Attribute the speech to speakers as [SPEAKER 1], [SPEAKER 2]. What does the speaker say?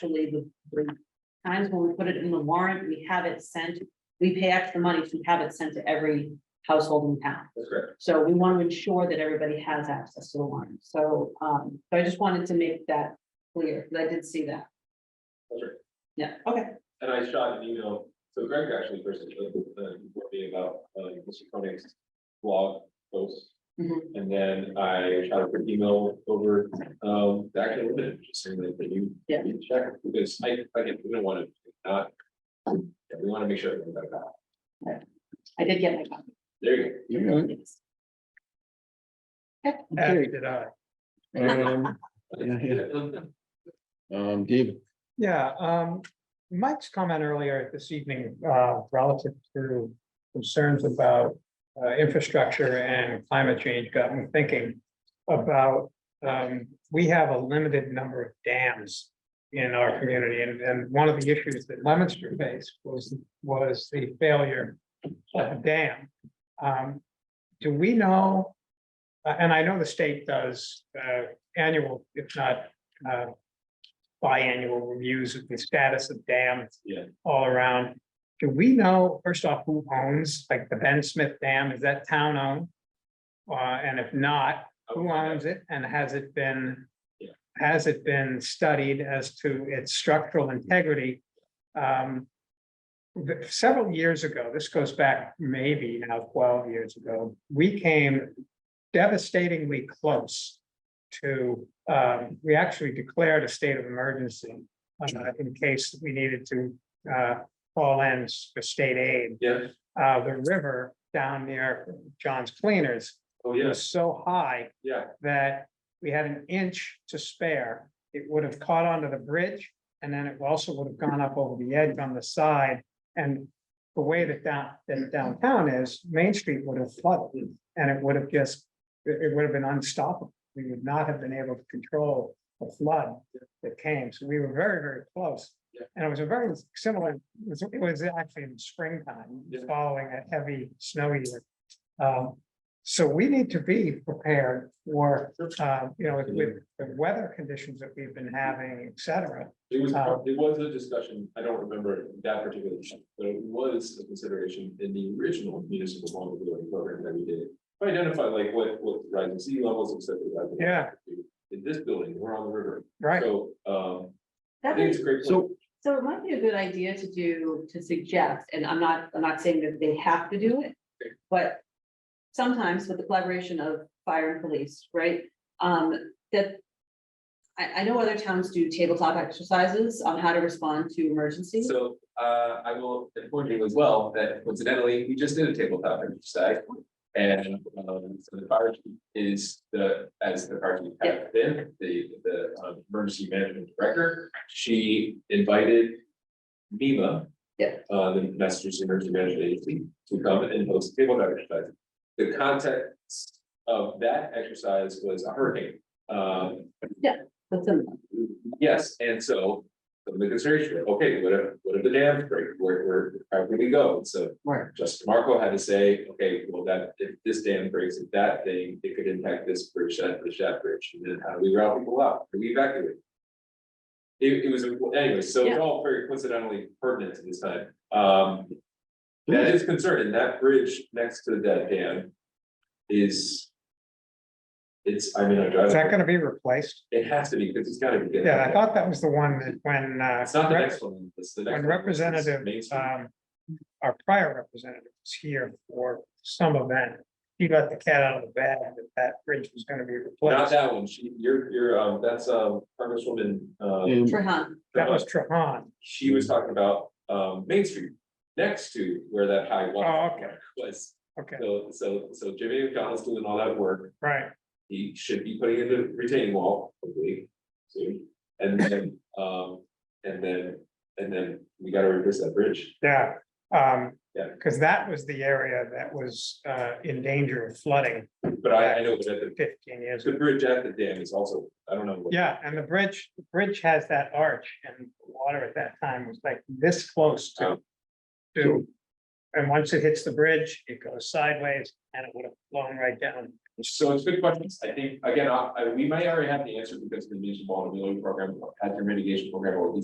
[SPEAKER 1] actually the, the times when we put it in the warrant, we have it sent. We pay extra money to have it sent to every household in town.
[SPEAKER 2] That's correct.
[SPEAKER 1] So we want to ensure that everybody has access to the warrant. So, um, so I just wanted to make that clear, because I did see that.
[SPEAKER 2] That's right.
[SPEAKER 1] Yeah, okay.
[SPEAKER 2] And I shot an email, so Greg actually personally, with me about, uh, Mr. Koenig's blog post.
[SPEAKER 1] Mhm.
[SPEAKER 2] And then I shot a quick email over, um, the actual woman, just saying that that you.
[SPEAKER 1] Yeah.
[SPEAKER 2] you Check, because I, again, we don't want to not, yeah, we want to make sure everything got that.
[SPEAKER 1] I did get my copy.
[SPEAKER 2] There you go.
[SPEAKER 3] You know,
[SPEAKER 1] Yes.
[SPEAKER 4] As
[SPEAKER 3] Okay.
[SPEAKER 4] did I.
[SPEAKER 3] Um, Yeah, um, David,
[SPEAKER 4] Yeah, um, Mike's comment earlier this evening, uh, relative to concerns about. Uh, infrastructure and climate change got me thinking about, um, we have a limited number of dams. In our community, and, and one of the issues that Lemonster faced was, was the failure of a dam. Um, do we know? uh, and I know the state does, uh, annual, if not, uh, biannual reviews of the status of dams.
[SPEAKER 2] Yeah.
[SPEAKER 4] All around. Do we know, first off, who owns, like the Ben Smith Dam, is that town owned? Uh, and if not, who owns it and has it been?
[SPEAKER 2] Yeah.
[SPEAKER 4] Has it been studied as to its structural integrity? Um. the- Several years ago, this goes back maybe now twelve years ago, we came devastatingly close to, um, we actually declared a state of emergency uh, in case we needed to, uh, call in for state aid.
[SPEAKER 2] Yeah,
[SPEAKER 4] Uh, the river down near John's Cleaners
[SPEAKER 2] oh, yes,
[SPEAKER 4] was so high
[SPEAKER 2] yeah,
[SPEAKER 4] that we had an inch to spare. It would have caught onto the bridge and then it also would have gone up over the edge on the side. And the way that down, that downtown is, Main Street would have flooded and it would have just, it, it would have been unstoppable. We would not have been able to control the flood that came. So we were very, very close.
[SPEAKER 2] Yeah.
[SPEAKER 4] And it was a very similar, it was, it was actually in springtime,
[SPEAKER 2] Yeah.
[SPEAKER 4] following a heavy snow year. Um, so we need to be prepared for, uh, you know, with the weather conditions that we've been having, et cetera.
[SPEAKER 2] it was,
[SPEAKER 4] Um,
[SPEAKER 2] it was a discussion, I don't remember that particular issue, but it was a consideration in the original municipal vulnerability program that we did. to Identify like what, what rising sea levels, et cetera. that-
[SPEAKER 4] Yeah.
[SPEAKER 2] In this building, we're on the river,
[SPEAKER 4] Right,
[SPEAKER 2] so, um, I
[SPEAKER 1] That
[SPEAKER 2] think
[SPEAKER 1] is,
[SPEAKER 2] it's a great.
[SPEAKER 3] so,
[SPEAKER 1] so it might be a good idea to do, to suggest, and I'm not, I'm not saying that they have to do it. But sometimes with the collaboration of fire and police, right? Um, that. I, I know other towns do tabletop exercises on how to respond to emergencies.
[SPEAKER 2] So, uh, I will inform you as well that coincidentally, we just did a tabletop exercise. And, um, so the fire chief is the, as the fire chief has been, the, the, um, emergency management director, she invited. MEMA.
[SPEAKER 1] Yeah.
[SPEAKER 2] Uh, the Massachusetts Emergency Management Agency to come and host a tabletop exercise. The context of that exercise was a hurricane. Um,
[SPEAKER 1] That's a-
[SPEAKER 2] Yes, and so, the consideration, okay, what if, what if the dam break, where, where, how can we go? So
[SPEAKER 1] Right.
[SPEAKER 2] Justin Marco had to say, okay, well, that, if this dam breaks, if that thing, it could impact this bridge, that bridge, that bridge, and then how do we route people out, do we evacuate? It, it was, anyway, so it's all very coincidentally pertinent to this time, um. That is concerning, that bridge next to that dam is. It's, I mean, I drive.
[SPEAKER 4] is that gonna be replaced?
[SPEAKER 2] It has to be, because it's gotta be.
[SPEAKER 4] Yeah, I thought that was the one that when, uh.
[SPEAKER 2] It's not the next one, it's the next.
[SPEAKER 4] When
[SPEAKER 2] one, it's
[SPEAKER 4] Representative,
[SPEAKER 2] Main Street.
[SPEAKER 4] um, our prior representative was here for some event. He let the cat out of the bag that that bridge was gonna be
[SPEAKER 2] Not
[SPEAKER 4] replaced.
[SPEAKER 2] that one, she, you're, you're, um, that's, um, Congresswoman, uh,
[SPEAKER 3] um,
[SPEAKER 1] Trahan,
[SPEAKER 4] That was Trahan.
[SPEAKER 2] she was talking about, um, Main Street. Next to where that high
[SPEAKER 4] Oh,
[SPEAKER 2] water
[SPEAKER 4] okay.
[SPEAKER 2] was,
[SPEAKER 4] Okay,
[SPEAKER 2] so, so, so Jimmy McDonald's doing all that work,
[SPEAKER 4] right.
[SPEAKER 2] he should be putting in the retaining wall, hopefully. Soon, and then, um, and then, and then we gotta reverse that bridge,
[SPEAKER 4] Yeah, um,
[SPEAKER 2] Yeah.
[SPEAKER 4] because that was the area that was uh in danger of flooding
[SPEAKER 2] but I, I know that
[SPEAKER 4] fifteen years
[SPEAKER 2] the, the
[SPEAKER 4] ago.
[SPEAKER 2] bridge at the dam is also, I don't know. what-
[SPEAKER 4] Yeah, and the bridge, the bridge has that arch and the water at that time was like this close to. To, and once it hits the bridge, it goes sideways and it would have flown right down.
[SPEAKER 2] So it's good questions. I think, again, I, I- we might already have the answer because the municipal vulnerability program, hazard mitigation program, or at least